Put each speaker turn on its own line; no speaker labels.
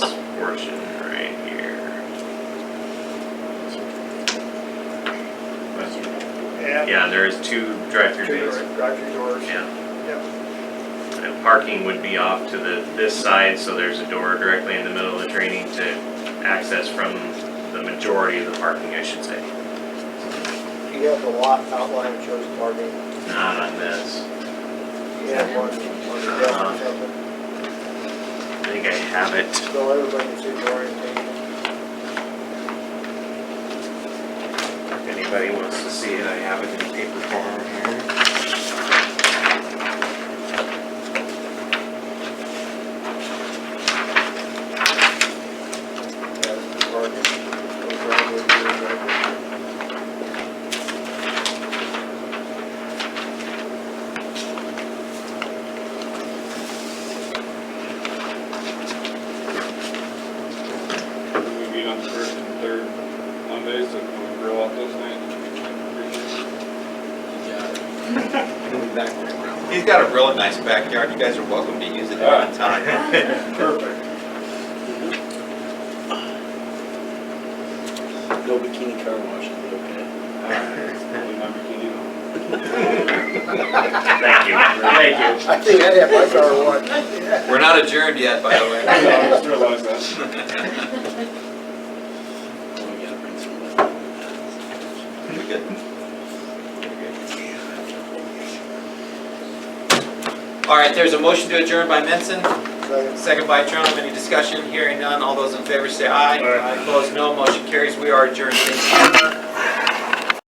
Yeah.
Yeah, there is two drive-through
Two
bays.
door- drive-through doors.
Yeah,
Yep.
and parking would be off to the, this side, so there's a door directly in the middle of the training to access from the majority of the parking, I should say.
You have the lot outline that shows parking.
Not on this.
You have one, one
Uh-huh.
down,
I think I have it.
so everybody can see the orientation.
If anybody wants to see it, I have it in paper form here.
Yeah, it's parking. Those driveways, those driveways.
We meet on the first and third Mondays, and we grill out those nights.
He's got a real nice backyard, you guys are welcome to use it at any time.
Perfect.
No bikini car wash, it'll be okay.
Only Uh, my bikini on.
Thank you, thank you.
I think I'd have my car one.
We're not adjourned yet, by the way.
I just realized that.
Well, we gotta bring some.
We good? All right, there's a motion to adjourn by Menson,
Second.
second by Trump, any discussion, hearing none, all those in favor say aye.
Aye.
Opposed, no, motion carries, we are adjourned, thank you.